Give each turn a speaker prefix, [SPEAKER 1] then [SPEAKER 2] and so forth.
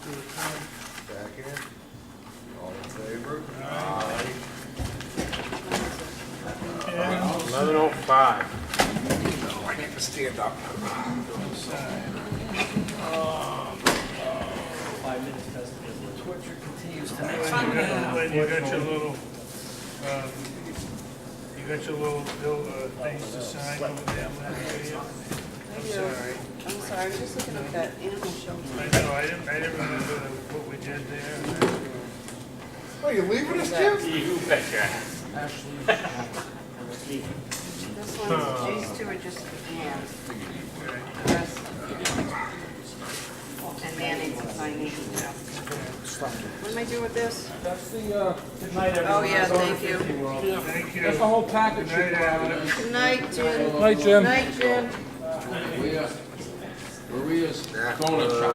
[SPEAKER 1] five.
[SPEAKER 2] Oh, I need to stand up.
[SPEAKER 3] Five minutes testimony. Torture continues to
[SPEAKER 4] Then
[SPEAKER 3] next
[SPEAKER 4] you
[SPEAKER 3] week.
[SPEAKER 4] got- then you got your little, um, you got your little, bill, uh, things to sign over there.
[SPEAKER 5] I
[SPEAKER 4] I'm
[SPEAKER 5] do.
[SPEAKER 4] sorry.
[SPEAKER 5] I'm sorry, I'm just looking at that animal shelter.
[SPEAKER 4] I know, I didn't, I didn't remember what we did there.
[SPEAKER 2] Oh, you leaving us, Jim?
[SPEAKER 1] You bet your ass.
[SPEAKER 5] This one, these two are just hands. The rest. And Manny's is my name. What am I doing with this?
[SPEAKER 6] That's the, uh,
[SPEAKER 5] Oh, yeah, thank you.
[SPEAKER 4] Thank you.
[SPEAKER 6] that's the whole package.
[SPEAKER 4] Good night, Adam.
[SPEAKER 5] Good night, Jim.
[SPEAKER 6] Night, Jim.
[SPEAKER 5] Night, Jim.
[SPEAKER 7] Maria's, Maria's donut shop.